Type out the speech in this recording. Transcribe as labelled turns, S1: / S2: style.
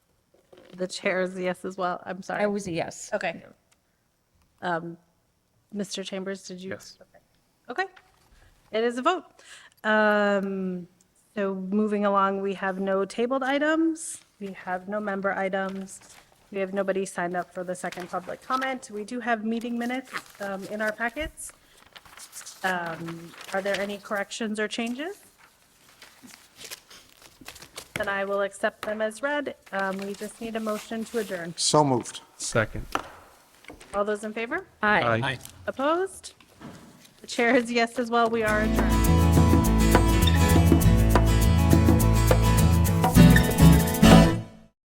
S1: the chair is yes as well. I'm
S2: I
S1: sorry.
S2: was a yes.
S1: Okay. Um, Mr. Chambers, did you?
S3: Yes.
S1: Okay. It is a vote. Um, So moving along, we have no tabled items. We have no member items. We have nobody signed up for the second public comment. We do have meeting minutes um, in our packets. Um, Are there any corrections or changes? Then I will accept them as read. Um, We just need a motion to adjourn.
S4: So moved.
S3: Second.
S1: All those in favor?
S2: Aye.
S3: Aye.
S1: Opposed? The chair is yes as well. We are adjourned.